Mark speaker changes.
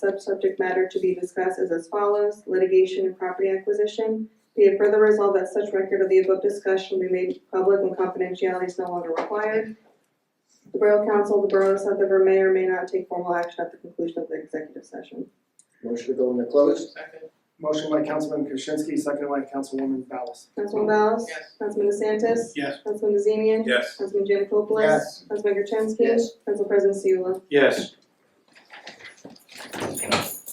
Speaker 1: Sub-subject matter to be discussed is as follows, litigation and property acquisition. Be it further resolved that such record of the above discussion be made public when confidentiality is no longer required. The Borough Council of the Borough of South River may or may not take formal action at the conclusion of the executive session.
Speaker 2: Motion to go into closed?
Speaker 3: Second,
Speaker 4: Motion by Councilman Krasinski, seconded by Councilwoman Ballas.
Speaker 1: Councilman Ballas?
Speaker 3: Yes.
Speaker 1: Councilman DeSantis?
Speaker 5: Yes.
Speaker 1: Councilman Bazemian?
Speaker 5: Yes.
Speaker 1: Councilman Janikopoulos?
Speaker 2: Yes.
Speaker 1: Councilman Gertenski?
Speaker 2: Yes.
Speaker 1: Council President Seula?
Speaker 5: Yes.